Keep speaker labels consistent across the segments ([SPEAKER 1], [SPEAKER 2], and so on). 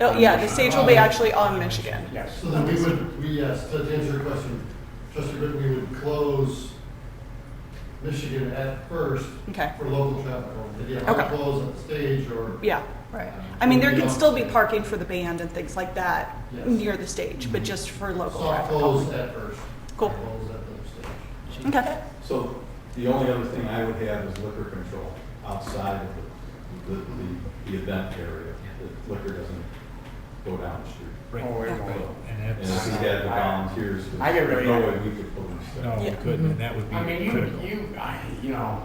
[SPEAKER 1] Oh, yeah, the stage will be actually on Michigan.
[SPEAKER 2] Yes.
[SPEAKER 3] So then we would, we, yes, to answer your question, Trustee Britton, we would close Michigan at first
[SPEAKER 1] Okay,
[SPEAKER 3] for local traffic only. Yeah,
[SPEAKER 1] Okay.
[SPEAKER 3] not close at the stage or, uh,
[SPEAKER 1] yeah.
[SPEAKER 4] Right.
[SPEAKER 1] I mean, there can still be parking for the band and things like that
[SPEAKER 3] Yes.
[SPEAKER 1] near the stage, but just for local
[SPEAKER 3] soft
[SPEAKER 1] traffic.
[SPEAKER 3] close at first.
[SPEAKER 1] Cool.
[SPEAKER 3] Close at the stage.
[SPEAKER 1] Okay,
[SPEAKER 5] So the only other thing I would have is liquor control outside of the, the, the- the event area. The liquor doesn't go down the street.
[SPEAKER 2] Right. Oh, it won't.
[SPEAKER 6] And
[SPEAKER 5] And if
[SPEAKER 6] that's,
[SPEAKER 5] we had the volunteers,
[SPEAKER 2] I get
[SPEAKER 5] there's
[SPEAKER 2] really-
[SPEAKER 5] no way we could pull this
[SPEAKER 6] no,
[SPEAKER 5] stuff.
[SPEAKER 6] we
[SPEAKER 1] Yeah.
[SPEAKER 6] couldn't, and that would
[SPEAKER 2] I mean,
[SPEAKER 6] be
[SPEAKER 2] you,
[SPEAKER 6] critical.
[SPEAKER 2] you, I, you know,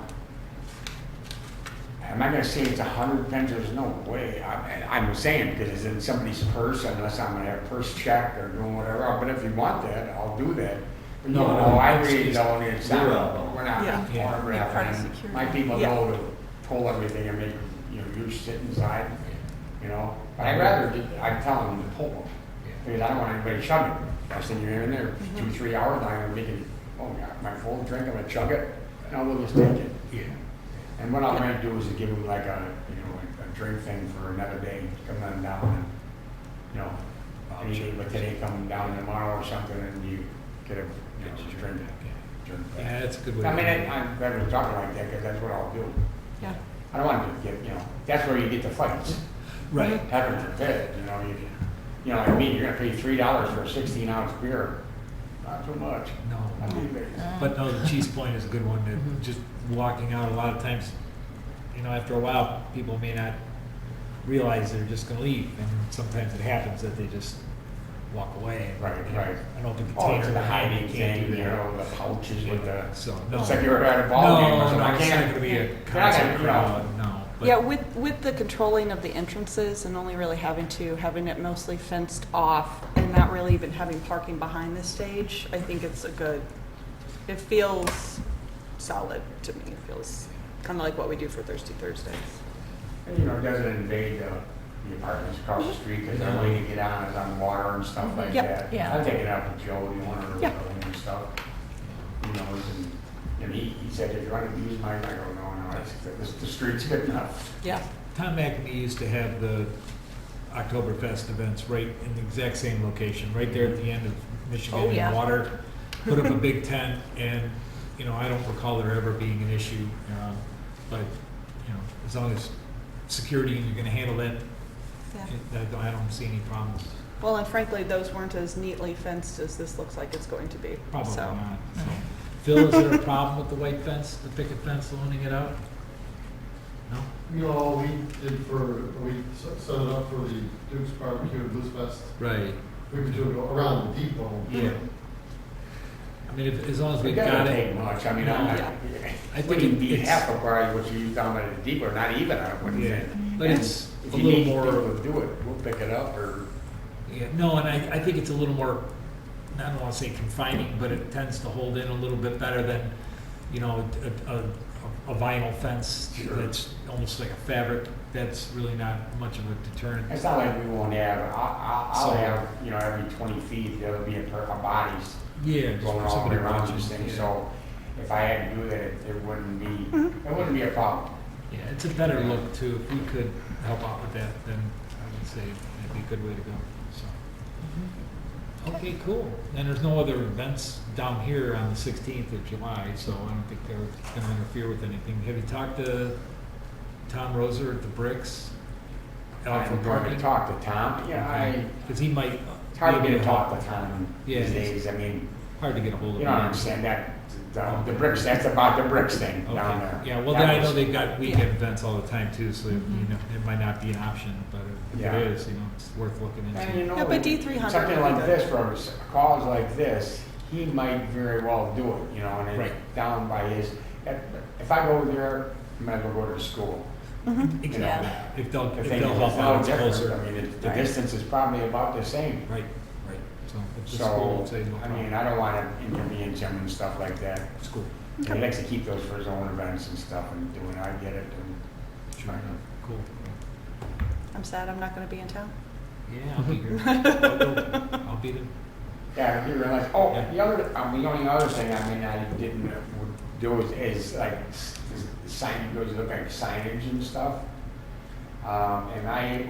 [SPEAKER 2] I'm not gonna say it's a hundred times, there's no way. I, I'm saying, because it's in somebody's purse, unless I'm gonna have a purse check or doing whatever, Oh, but if you want that, I'll do that. But you
[SPEAKER 5] No,
[SPEAKER 2] know,
[SPEAKER 5] no,
[SPEAKER 2] I
[SPEAKER 5] it's-
[SPEAKER 2] really
[SPEAKER 5] it's
[SPEAKER 2] don't, it's not,
[SPEAKER 5] zero.
[SPEAKER 2] we're not
[SPEAKER 1] Yeah.
[SPEAKER 6] Yeah.
[SPEAKER 4] Be part of
[SPEAKER 2] pornography.
[SPEAKER 4] security.
[SPEAKER 2] My people
[SPEAKER 1] Yeah.
[SPEAKER 2] know to pull everything and make, you know, you sit inside, you know? But I'd rather, ju- I'd tell them to pull them. Because I don't want anybody chugging. I send you in there, two, three hours, I'm gonna make it, oh, God, my full drink, I'm gonna chug it, and I'll just take it.
[SPEAKER 6] Yeah.
[SPEAKER 2] And what I'm gonna do is give them like a, you know, like a drink thing for another day, come on down and, you know, anything, but today come down tomorrow or something, and you get a, you know, drink, drink.
[SPEAKER 6] Yeah, that's a good way.
[SPEAKER 2] I
[SPEAKER 6] to
[SPEAKER 2] mean,
[SPEAKER 6] do
[SPEAKER 2] I-
[SPEAKER 6] it.
[SPEAKER 2] I'm glad we're talking like that, because that's what I'll do.
[SPEAKER 1] yeah.
[SPEAKER 2] I don't want to get, you know, that's where you get the fights.
[SPEAKER 6] Right,
[SPEAKER 2] Heaven forbid, you know, you, you know, what I mean, you're gonna pay three dollars for a sixteen ounce beer, not too much.
[SPEAKER 6] no.
[SPEAKER 2] I mean, but-
[SPEAKER 6] But no, the cheese point is a good one,
[SPEAKER 2] Mm-hmm.
[SPEAKER 6] that just walking out, a lot of times, you know, after a while, people may not realize they're just gonna leave, and sometimes it happens that they just walk away. and,
[SPEAKER 2] Right,
[SPEAKER 6] you know,
[SPEAKER 2] right.
[SPEAKER 6] An open
[SPEAKER 2] Oh,
[SPEAKER 6] container.
[SPEAKER 2] to the hiding
[SPEAKER 6] can't
[SPEAKER 2] thing,
[SPEAKER 6] do
[SPEAKER 2] you
[SPEAKER 6] that.
[SPEAKER 2] know, the pouches with the,
[SPEAKER 6] So, no.
[SPEAKER 2] it's like you were at a ball game or something, I
[SPEAKER 6] No, no, it's not
[SPEAKER 2] can't.
[SPEAKER 6] gonna be a
[SPEAKER 2] They're not gonna
[SPEAKER 6] concert
[SPEAKER 2] crowd.
[SPEAKER 6] crowd, no. but-
[SPEAKER 4] Yeah, with, with the controlling of the entrances and only really having to, having it mostly fenced off
[SPEAKER 1] And not really even having parking behind the stage, I think it's a good, it feels solid to me. It feels kind of like what we do for Thirsty Thursdays.
[SPEAKER 2] And, You know, it doesn't invade the, the apartments across the street, because their way to get on is on water and stuff like
[SPEAKER 1] Mm-hmm. Yep,
[SPEAKER 2] that.
[SPEAKER 4] yeah.
[SPEAKER 2] I'll take it out with Joe, you want to,
[SPEAKER 1] Yeah.
[SPEAKER 2] and stuff, you know, and, and he, he said, if you want to use mine, I go, no, no, I said, the, the street's good enough.
[SPEAKER 1] Yeah,
[SPEAKER 6] Tom McNee used to have the Oktoberfest events right in the exact same location, right there at the end of Michigan
[SPEAKER 4] Oh, yeah.
[SPEAKER 6] and Water. Put up a big tent and, you know, I don't recall there ever being an issue. um, But, you know, as long as security, you're gonna handle that,
[SPEAKER 1] yeah.
[SPEAKER 6] it- I don't see any problems.
[SPEAKER 1] Well, and frankly, those weren't as neatly fenced as this looks like it's going to be.
[SPEAKER 6] Probably
[SPEAKER 1] so.
[SPEAKER 6] not. so. Phil, is there a problem with the white fence, the picket fence loaning it out? No?
[SPEAKER 3] No, we did for, we s- set it up for the Duke's Barbecue and Blues Fest.
[SPEAKER 6] Right.
[SPEAKER 3] We would do it around the depot.
[SPEAKER 2] Yeah.
[SPEAKER 6] I mean, if- as long as
[SPEAKER 2] It
[SPEAKER 6] we've
[SPEAKER 2] doesn't
[SPEAKER 6] got
[SPEAKER 2] take
[SPEAKER 6] it.
[SPEAKER 2] much, I mean,
[SPEAKER 1] Yeah.
[SPEAKER 2] I,
[SPEAKER 6] I
[SPEAKER 2] I
[SPEAKER 6] think
[SPEAKER 2] wouldn't be
[SPEAKER 6] it's-
[SPEAKER 2] half of probably what you use down by the depot, not even, I wouldn't
[SPEAKER 6] Yeah,
[SPEAKER 2] think.
[SPEAKER 6] but it's
[SPEAKER 2] If
[SPEAKER 6] a
[SPEAKER 2] you
[SPEAKER 6] little
[SPEAKER 2] need
[SPEAKER 6] more.
[SPEAKER 2] people to do it, we'll pick it up, or,
[SPEAKER 6] Yeah, no, and I, I think it's a little more, I don't want to say confining, but it tends to hold in a little bit better than, you know, a, a, a vinyl fence
[SPEAKER 2] Sure.
[SPEAKER 6] that's almost like a fabric, that's really not much of a deterrent.
[SPEAKER 2] it's not like we won't have, I, I, I'll
[SPEAKER 6] So-
[SPEAKER 2] have, you know, every twenty feet, there'll be a pair of bodies
[SPEAKER 6] Yeah. just
[SPEAKER 2] going all the way
[SPEAKER 6] somebody
[SPEAKER 2] around
[SPEAKER 6] watching,
[SPEAKER 2] these things,
[SPEAKER 6] yeah.
[SPEAKER 2] so if I had to do that, it it wouldn't be, it wouldn't be a problem.
[SPEAKER 6] Yeah, it's a better look too, if we could help out with that, then I would say that'd be a good way to go, so.
[SPEAKER 2] Mm-hmm.
[SPEAKER 6] Okay, cool, and there's no other events down here on the sixteenth of July, so I don't think they're gonna interfere with anything. Have you talked to Tom Roser at the Bricks? Out for
[SPEAKER 2] I'm going to
[SPEAKER 6] parking?
[SPEAKER 2] talk to Tom, yeah, I,
[SPEAKER 6] Cause he might.
[SPEAKER 2] it's hard to
[SPEAKER 6] be
[SPEAKER 2] get
[SPEAKER 6] able
[SPEAKER 2] a talk to Tom
[SPEAKER 6] Yeah,
[SPEAKER 2] these
[SPEAKER 6] it is.
[SPEAKER 2] days, I mean,
[SPEAKER 6] Hard to get ahold of.
[SPEAKER 2] you
[SPEAKER 6] him.
[SPEAKER 2] don't understand that, the, the bricks, that's about the bricks thing
[SPEAKER 6] Okay.
[SPEAKER 2] down there.
[SPEAKER 6] Yeah, well,
[SPEAKER 2] That
[SPEAKER 6] then I know
[SPEAKER 2] was-
[SPEAKER 6] they've got weekend events all the time too, so, you know, it might not be an option, but if
[SPEAKER 2] Yeah.
[SPEAKER 6] it is, you know, it's worth looking into.
[SPEAKER 2] And you know,
[SPEAKER 1] Yeah, but D300
[SPEAKER 2] Something
[SPEAKER 1] would be
[SPEAKER 2] like
[SPEAKER 1] good.
[SPEAKER 2] this, for a cause like this, he might very well do it, you know, and it's
[SPEAKER 6] Right.
[SPEAKER 2] down by his, if if I go there, I might as well go to the school.
[SPEAKER 6] Exactly.
[SPEAKER 2] Yeah.
[SPEAKER 6] If they'll,
[SPEAKER 2] The
[SPEAKER 6] if
[SPEAKER 2] thing
[SPEAKER 6] they'll
[SPEAKER 2] is,
[SPEAKER 6] help
[SPEAKER 2] it's
[SPEAKER 6] out,
[SPEAKER 2] no
[SPEAKER 6] it's
[SPEAKER 2] different, I
[SPEAKER 6] closer.
[SPEAKER 2] mean, it- the
[SPEAKER 1] Right.
[SPEAKER 2] distance is probably about the same.
[SPEAKER 6] Right, right. So if the school
[SPEAKER 2] So,
[SPEAKER 6] would say no
[SPEAKER 2] I mean,
[SPEAKER 6] problem.
[SPEAKER 2] I don't want to inconvenience him and stuff like that.
[SPEAKER 6] School.
[SPEAKER 2] And He likes to keep those for his own events and stuff and doing, I get it, and
[SPEAKER 6] Sure
[SPEAKER 2] Right.
[SPEAKER 6] enough. Cool.
[SPEAKER 1] I'm sad I'm not going to be in town.
[SPEAKER 6] Yeah, I'll be here. I'll go. I'll be there.
[SPEAKER 2] Yeah, I did realize, oh,
[SPEAKER 6] Yeah.
[SPEAKER 2] the other, um, the only other thing, I mean, I didn't uh, would do is, is like, s- is sign, goes, look like signage and stuff. Um, and I